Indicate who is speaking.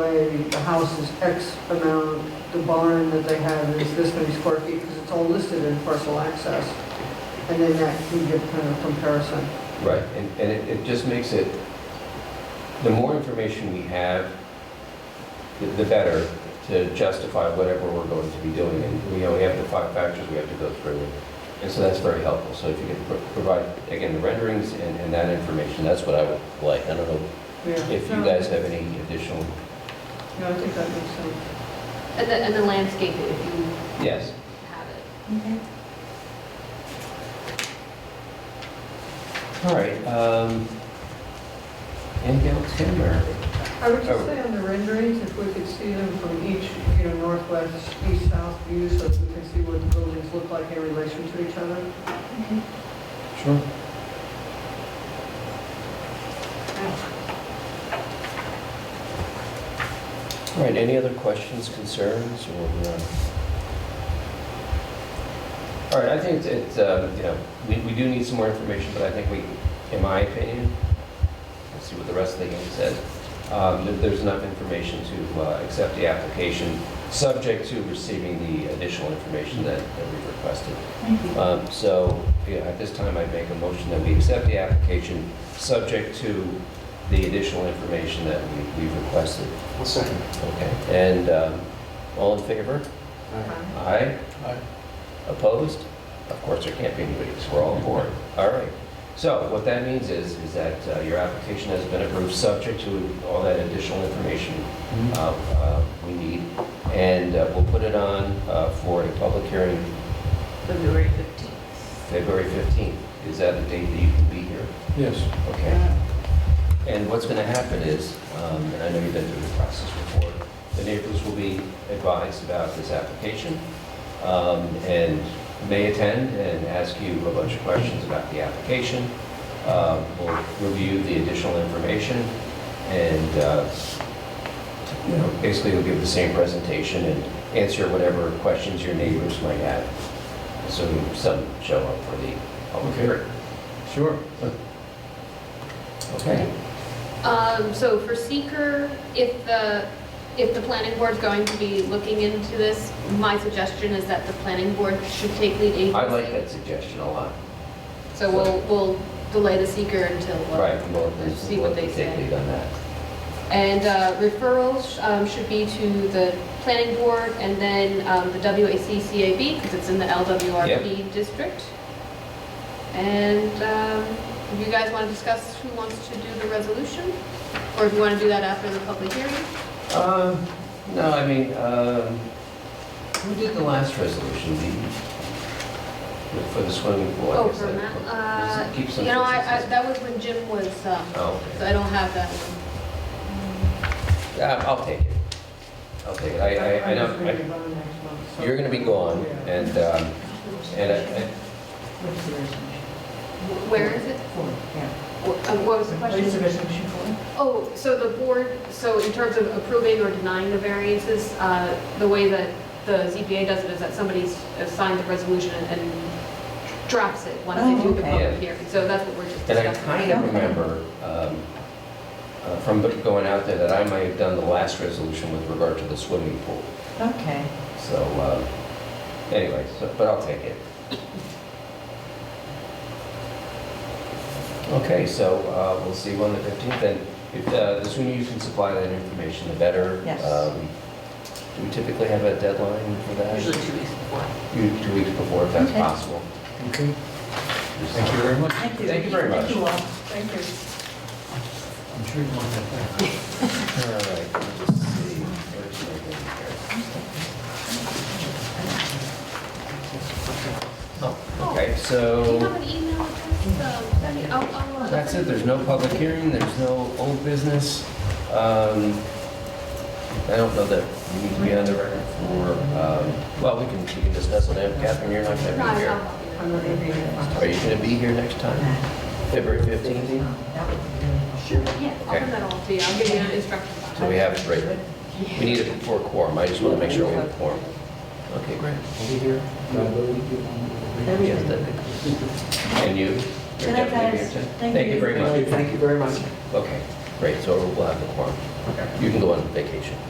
Speaker 1: way, the house is X amount, the barn that they have is this many square feet, because it's all listed in parcel access. And then that can give kind of comparison.
Speaker 2: Right, and, and it, it just makes it, the more information we have, the, the better to justify whatever we're going to be doing. And, we know, we have the five factors we have to go through, and so that's very helpful. So if you can pro- provide, again, the renderings and, and that information, that's what I would like. I don't know
Speaker 1: Yeah.
Speaker 2: if you
Speaker 1: No,
Speaker 2: guys have any additional,
Speaker 1: Yeah, I think that makes sense.
Speaker 3: And the, and the landscape, if you
Speaker 2: yes,
Speaker 3: have it.
Speaker 2: all right. um, Anything else, Tim, or?
Speaker 1: I would just say on the renderings, if we could see them from each, you know, northwest, east, south view, so that we can see what the buildings look like in relation to each other.
Speaker 2: Sure. All right, any other questions, concerns, or? uh, All right, I think it's- it's, uh, you know, we, we do need some more information, but I think we, in my opinion, let's see what the rest of the game says, um, that there's enough information to uh, accept the application, subject to receiving the additional information that that we requested. Um, So, yeah, at this time, I'd make a motion that we accept the application, subject to the additional information that we- we've requested.
Speaker 4: I'll second.
Speaker 2: Okay, and um, all in favor? Aye?
Speaker 4: Aye.
Speaker 2: Opposed? Of course, there can't be anybody, because we're all aboard. All right. So what that means is, is that uh, your application has been approved, subject to all that additional information uh, uh, we need, and uh, we'll put it on uh, for a public hearing
Speaker 3: February 15th.
Speaker 2: February 15th, is that the date that you can be here?
Speaker 4: Yes.
Speaker 2: Okay. And what's going to happen is, um, and I know you've been through the process before, the neighbors will be advised about this application um, and may attend and ask you a bunch of questions about the application. Um, We'll review the additional information and, uh, you know, basically you'll give the same presentation and answer whatever questions your neighbors might have. So some show up for the public
Speaker 4: Okay.
Speaker 2: hearing.
Speaker 4: Sure. Uh,
Speaker 2: Okay?
Speaker 3: Um, so for seeker, if the, if the planning board's going to be looking into this, my suggestion is that the planning board should take lead agency.
Speaker 2: I like that suggestion a lot.
Speaker 3: So we'll, we'll delay the seeker until. uh,
Speaker 2: Right, well,
Speaker 3: Let's
Speaker 2: this
Speaker 3: see
Speaker 2: is
Speaker 3: what
Speaker 2: what
Speaker 3: they
Speaker 2: they take
Speaker 3: say.
Speaker 2: lead on that.
Speaker 3: And uh, referrals um, should be to the planning board and then um, the WACCAB, because it's in the LWRP district. And um, if you guys want to discuss who wants to do the resolution, or if you want to do that after the public hearing?
Speaker 2: Um, No, I mean, um, who did the last resolution, the, for the swimming pool? I
Speaker 3: Oh,
Speaker 2: guess
Speaker 3: for
Speaker 2: that-
Speaker 3: Matt,
Speaker 2: does it keep
Speaker 3: uh,
Speaker 2: some
Speaker 3: you know, I, I-
Speaker 2: consistency?
Speaker 3: that was when Jim was, um,
Speaker 2: Oh,
Speaker 3: so
Speaker 2: okay.
Speaker 3: I don't have that one.
Speaker 2: Yeah, I'll take it. I'll take it. I, I, I
Speaker 1: I'm just gonna be
Speaker 2: know,
Speaker 1: gone next month,
Speaker 2: I-
Speaker 1: so-
Speaker 2: you're gonna be gone,
Speaker 1: Yeah.
Speaker 2: and, um, and, I-
Speaker 5: What's the resolution?
Speaker 3: Wh- Where is it?
Speaker 5: For, yeah.
Speaker 3: Wh- uh, What was the
Speaker 5: What is the
Speaker 3: question?
Speaker 5: resolution for?
Speaker 3: Oh, so the board, so in terms of approving or denying the variances, uh, the way that the ZBA does it is that somebody s- uh, signs the resolution and drops it once they do the
Speaker 5: Oh, okay.
Speaker 3: public hearing. So that's what we're just
Speaker 2: and I
Speaker 3: discussing.
Speaker 2: kind of remember, um, uh, from going out there, that I might have done the last resolution with regard to the swimming pool.
Speaker 5: Okay.
Speaker 2: So, uh, anyway, so, but I'll take it. Okay, so uh, we'll see you on the 15th, and if, uh, the sooner you can supply that information, the better.
Speaker 5: Yes.
Speaker 2: Um, Do we typically have a deadline for that?
Speaker 5: Usually two weeks before.
Speaker 2: Two two weeks before, if that's
Speaker 5: Okay.
Speaker 2: possible.
Speaker 4: Okay. Thank you very much.
Speaker 5: Thank you.
Speaker 2: Thank you very much.
Speaker 5: Thank you all. Thank you.
Speaker 4: I'm sure you want that back.
Speaker 2: All right, let's just see. Where's my thing here? Oh, okay, so...
Speaker 3: Do you have an email address? Um, send me- I'll- I'll, uh,
Speaker 2: That's it, there's no public hearing, there's no old business. Um, I don't know that we need to be on the record for, um, well, we can, we can discuss it, now. Catherine, you're not
Speaker 3: No,
Speaker 2: gonna
Speaker 3: I'll-
Speaker 2: be here.
Speaker 5: I'm
Speaker 3: I'll-
Speaker 5: not gonna be here.
Speaker 2: Are you gonna be here next time, February 15th?
Speaker 5: That would be really helpful.
Speaker 3: Yeah, I'll send that all to you. I'll give you instructions. on it.
Speaker 2: So we have it right, we need it for a quorum, I just wanna make sure we have a quorum. Okay, great.
Speaker 4: I'll be here.
Speaker 2: Yes, that'd be good. And you? You're
Speaker 5: Good night,
Speaker 2: definitely
Speaker 5: guys.
Speaker 2: here, too?
Speaker 5: Thank
Speaker 2: Thank you
Speaker 5: you.
Speaker 2: very
Speaker 4: Thank you.
Speaker 2: much.
Speaker 4: Thank you very much.
Speaker 2: Okay, great, so we'll have the quorum. You can go on vacation.